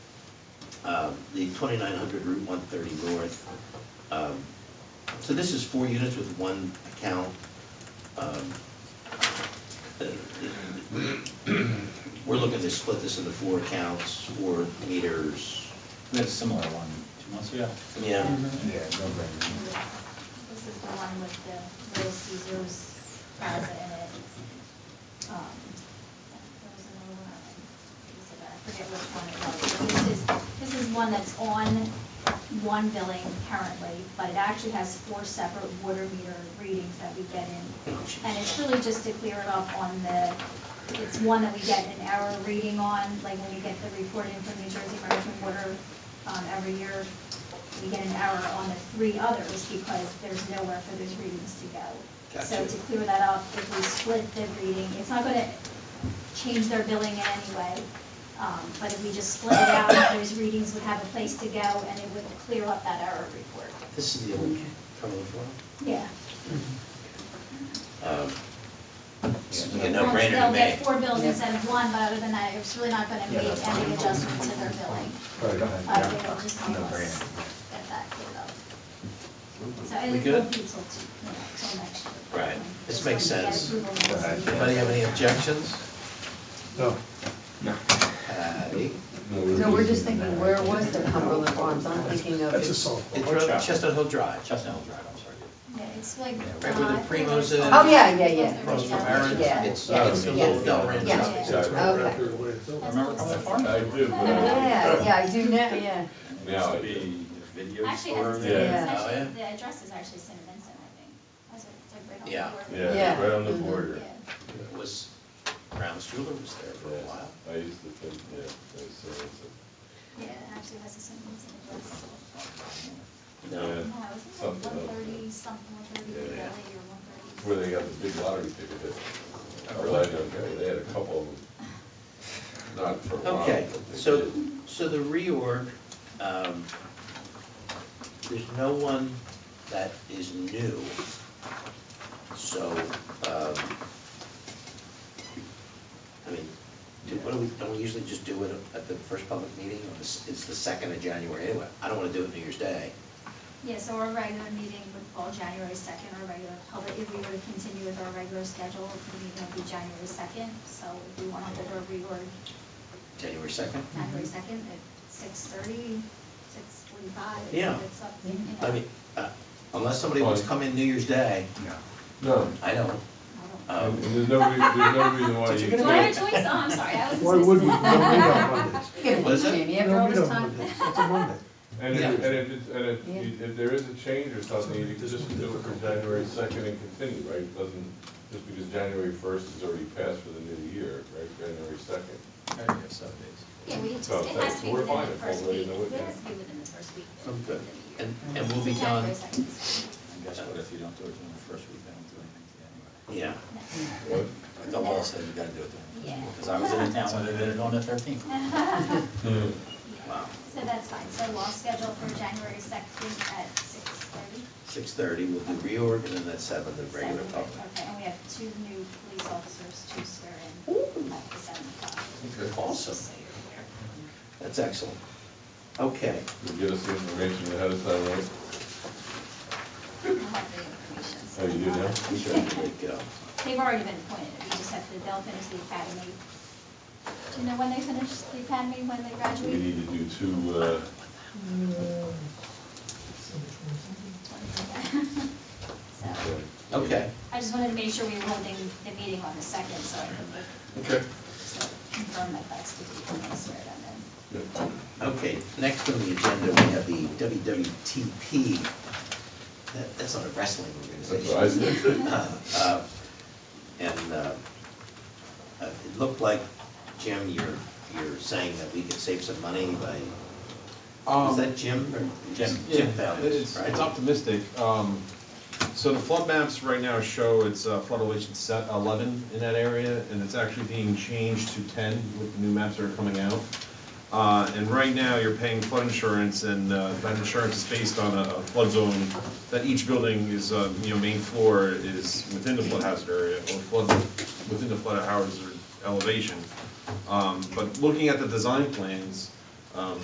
um, the 2900 Route 130 North. Um, So this is four units with one account. Um, uh, We're looking to split this into four accounts, four meters. We had a similar one two months ago. Yeah. Mm-hmm. Yeah, no brainer. This is the one with the Little Caesar's plaza in it. Um, There was another one, I think, I forget which one it was. But This is, this is one that's on one billing currently, but it actually has four separate water meter readings that we get in. And it's really just to clear it up on the, it's one that we get an error reading on, like when we get the report in from New Jersey Department of Water um, every year, we get an error on the three others because there's nowhere for those readings to go. So Gotcha. to clear that up, if we split the reading, it's not going to change their billing in any way, um, but if we just split it out, those readings would have a place to go and it would clear up that error report. This is the old Cumberland Farm. Yeah. Um, This would be a They'll- no-brainer to They'll me. get four bills instead of one, but other than that, it's really not going to Yeah, make that's any adjustment to their billing. Right, go ahead. Uh, They will just help No us brainer. get that cleared up. Mm-hmm. So, and We it won't good? be till, t- you know, till next year. Right. This Just makes when we get sense. approval, Go we'll ahead. see. Anybody have any objections? No. Patty? No, we're just thinking, where was the Cumberland Farms? I'm thinking of. That's a song. It's on Chestnut Hill Drive. Chestnut Hill Drive, I'm sorry. Yeah, it's like. right where the uh, Primos is. Oh, yeah, yeah, yeah. Across from Aaron's. Yeah. Yeah. It's, uh, it's a little Del Rey. Yeah. house. That's right Okay. after the way it's over. Remember Cumberland Farm? I do, but Yeah, yeah, I do know, yeah. It Yeah, used I to be a video Actually, it has store. to Yeah. Oh, say, it's yeah. actually, the address is actually St. Vincent, I think. That's what- it's like right on the Yeah. border. yeah, Yeah. it's right on the Mhm. border. It Was, Brown's Jeweler was there for a Yeah, while. I used to think, yeah, I used to, think Yeah, it actually has a St. Vincent address. No. No, I Yeah. was like Something one else. thirty, something, one thirty, Yeah, yeah. Valley or one it's thirty. where they got the big lottery ticket. hit. I relied on, that. they had a couple of them, not for a while. Okay, but they so, did. so the reorg, um, there's no one that is new. So, um, I mean, do, what do we, don't we usually just do it at the first public meeting? Or It's it's the second of January anyway. I don't wanna do it New Year's Day. Yeah, so our regular meeting would fall January second, our regular public, if we were to continue with our regular schedule, the meeting would be January second. So if we want to hold our reorg January second? January second at six thirty, six forty-five. Yeah. It's up, you know. I mean, uh, unless somebody wants to come in New Year's Day, No. No, I don't. I Um, and there's no, re- there's no reason why you don't- Do I have can't. a choice? Oh, I'm sorry, I was. Why would we, no, we supposed to- don't want this. Give it What is to it? Jamie after No, all we this don't time. want this. It's a Monday. And Yeah. if, and if, it's- and if, Yeah. you- if there is a change or something, you can just do it from January second and continue, right? It Doesn't, just because January first is already passed for the new year, right, January second. uh, Maybe it's seven days. Yeah, we just, it Oh, has to be we're within fine. the first Already week, know it, it yeah. has to be within the first week. of Okay. the And, and year. we'll be done, January 2nd is And guess what, if you don't do it during the first week, I don't do anything to you yeah. anyway. fine. But The law says you gotta do it then. Yeah. Because I was in a town when they did it on the thirteenth. Wow. So that's fine, so we'll schedule for January second at six thirty. Six thirty, we'll do reorg, and then that's seven, the regular public. Okay, and we have two new police officers to swear in at the seven o'clock. Awesome, So you're aware. that's excellent. Okay, You get us the information ahead of time, right? I'll have the information, so Oh, you do I'll- now? we should have a great go. They've already been appointed, we just have to, they'll finish the academy. Do you know when they finish the academy, when they We graduate? need to do two, uh, So, Okay, I just wanted to make sure we were holding the meeting on the second, so I could make- Okay. so confirm that that's the date when I swear it in. okay, next on the agenda, we have the WWTP. That, that's not a wrestling that's what I organization. said. Uh, And, uh, uh, it looked like, Jim, you're, you're saying that we could save some money by, is that Jim or? Jim. Jim Yeah, found this, Um, it's, right? it's optimistic. Um, So the flood maps right now show it's uh, flood elevation set eleven in that area, and it's actually being changed to ten with the new maps that are coming out. Uh, And right now, you're paying flood insurance, and uh, that insurance is based on a a flood zone, that each building is, uh, you know, main floor is within the flood hazard area, or flood, within the flood hazard elevation. Um, But looking at the design plans, um,